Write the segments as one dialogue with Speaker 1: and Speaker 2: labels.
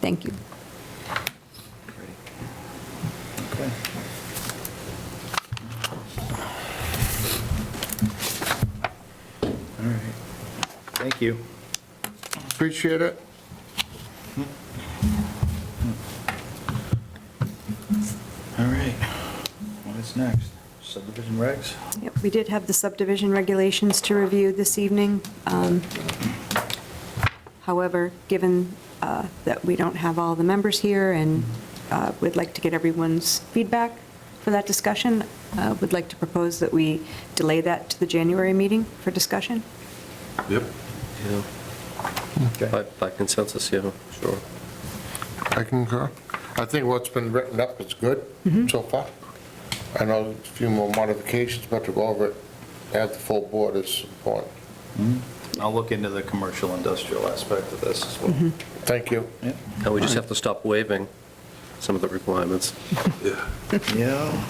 Speaker 1: Thank you.
Speaker 2: Okay. All right. Thank you.
Speaker 3: Appreciate it.
Speaker 2: All right. What is next? Subdivision regs?
Speaker 1: Yep, We did have the subdivision regulations to review this evening. Um, However, given uh, that we don't have all the members here and uh, would like to get everyone's feedback for that discussion, uh, would like to propose that we delay that to the January meeting for discussion.
Speaker 4: Yep.
Speaker 5: Yeah,
Speaker 2: Okay.
Speaker 5: by, by consensus, yeah, sure.
Speaker 3: I concur. I think what's been written up is good so far. I know a few more modifications, but to go over it, add the full board is important.
Speaker 2: I'll look into the commercial industrial aspect of this as well.
Speaker 3: Thank you.
Speaker 2: Yep.
Speaker 5: And we just have to stop waiving some of the requirements.
Speaker 4: Yeah,
Speaker 2: Yeah.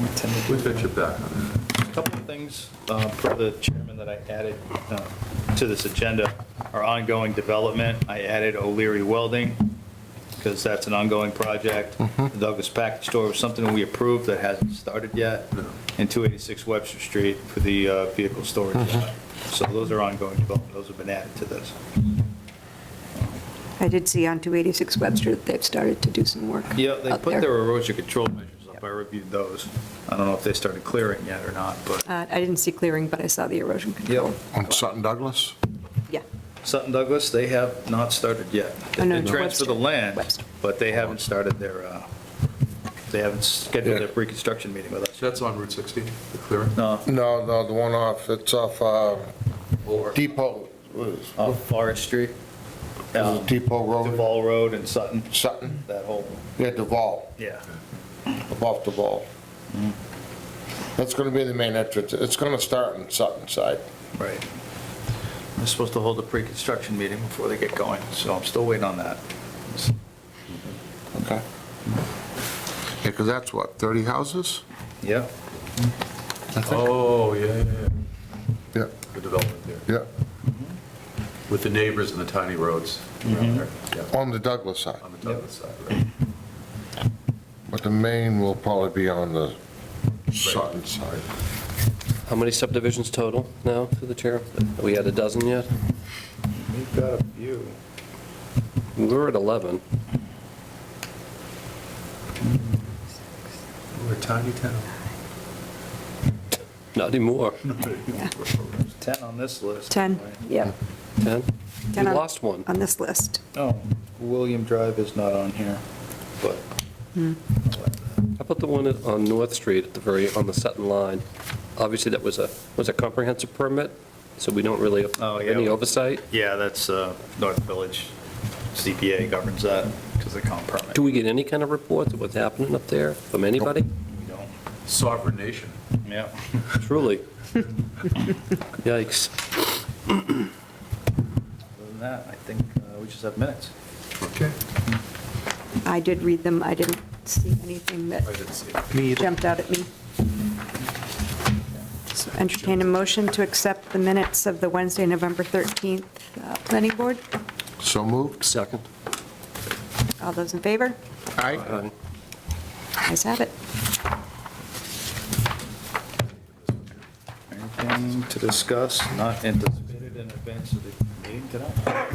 Speaker 2: we tend to do
Speaker 4: we got your back on that.
Speaker 2: Couple of things uh, for the chairman that I added uh, to this agenda are ongoing development. I added O'Leary Welding because that's an ongoing project. The Douglas Package Store was something we approved that hasn't started yet. And 286 Webster Street for the uh, vehicle storage. lot. So those are ongoing development. Those have been added to this.
Speaker 1: I did see on 286 Webster that they've started to do some work
Speaker 2: Yeah, they
Speaker 1: out
Speaker 2: put
Speaker 1: there.
Speaker 2: their erosion control measures up. I reviewed those. I don't know if they started clearing yet or not, but
Speaker 1: Uh, I didn't see clearing, but I saw the erosion control.
Speaker 2: Yep.
Speaker 3: On Sutton Douglas?
Speaker 1: Yeah.
Speaker 2: Sutton Douglas, they have not started yet.
Speaker 1: Oh, no,
Speaker 2: They
Speaker 1: Webster.
Speaker 2: transferred the land,
Speaker 1: Webster.
Speaker 2: but they haven't started their, uh, they haven't scheduled their
Speaker 3: Yeah.
Speaker 2: reconstruction meeting with us.
Speaker 4: That's on Route 60, the clearing?
Speaker 2: No,
Speaker 3: No, no, the one off, it's off uh,
Speaker 4: Or-
Speaker 3: Depot, was
Speaker 2: uh, Forestry,
Speaker 3: was it Depot Road,
Speaker 2: um, Duval Road and Sutton,
Speaker 3: Sutton?
Speaker 2: that whole,
Speaker 3: Yeah, Duval,
Speaker 2: yeah.
Speaker 3: above Duval. That's going to be the main entrance. It's going to start on Sutton side.
Speaker 2: Right. They're supposed to hold a pre-construction meeting before they get going, so I'm still waiting on that.
Speaker 3: Okay. Yeah, because that's what, 30 houses?
Speaker 2: Yeah,
Speaker 4: Oh, yeah, yeah, yeah,
Speaker 3: Yeah,
Speaker 4: the development there,
Speaker 3: yeah,
Speaker 4: with the neighbors and the tiny roads around there, yeah,
Speaker 3: on the Douglas side.
Speaker 4: on the Douglas side, right?
Speaker 3: But the main will probably be on the Sutton side.
Speaker 5: How many subdivisions total now, through the chair? Are we at a dozen yet?
Speaker 2: we've got a few.
Speaker 5: We were at 11.
Speaker 4: We're a tiny town.
Speaker 5: Not anymore.
Speaker 2: 10 on this list.
Speaker 1: 10, yep,
Speaker 5: 10?
Speaker 1: 10
Speaker 5: We
Speaker 1: on-
Speaker 5: lost one.
Speaker 1: on this list.
Speaker 2: Oh, William Drive is not on here, but.
Speaker 1: Hmm.
Speaker 5: How about the one at- on North Street at the very, on the Sutton line? Obviously, that was a, was a comprehensive permit, so we don't really
Speaker 2: Oh,
Speaker 5: have
Speaker 2: yeah.
Speaker 5: any oversight.
Speaker 2: Yeah, that's uh, North Village CPA governs that because they can't permit.
Speaker 5: Do we get any kind of reports of what's happening up there from anybody?
Speaker 2: We don't.
Speaker 4: Sovereign nation.
Speaker 2: Yeah.
Speaker 5: Truly. Yikes.
Speaker 2: Other than that, I think uh, we just have minutes.
Speaker 4: Okay.
Speaker 1: I did read them, I didn't see anything that
Speaker 4: I didn't see.
Speaker 1: jumped out at me. So Entertain a motion to accept the minutes of the Wednesday, November 13th uh, Planning Board.
Speaker 3: So moved?
Speaker 5: Second.
Speaker 1: All those in favor?
Speaker 3: Aye.
Speaker 5: Aye.
Speaker 1: Ayes have it.
Speaker 2: Anything to discuss, not anticipated in advance of the meeting tonight?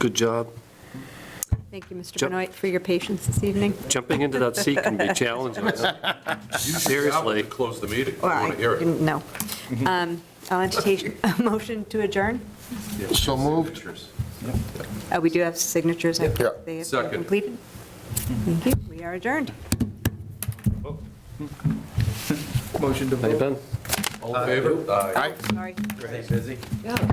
Speaker 5: Good job.
Speaker 1: Thank you, Mr.
Speaker 5: Jump.
Speaker 1: Benoit, for your patience this evening.
Speaker 5: Jumping into that seat can be challenging. Seriously.
Speaker 4: To close the meeting,
Speaker 1: Well,
Speaker 4: I want to hear it.
Speaker 1: didn't- No. Um, I'll entertain a motion to adjourn.
Speaker 3: So moved?
Speaker 1: Uh, We do have signatures. I-
Speaker 3: Yeah.
Speaker 1: They have been
Speaker 4: Second.
Speaker 1: completed. Thank you. We are adjourned.
Speaker 2: Motion to
Speaker 5: How you been?
Speaker 4: All in favor? Aye.
Speaker 1: Sorry.
Speaker 2: Pretty busy.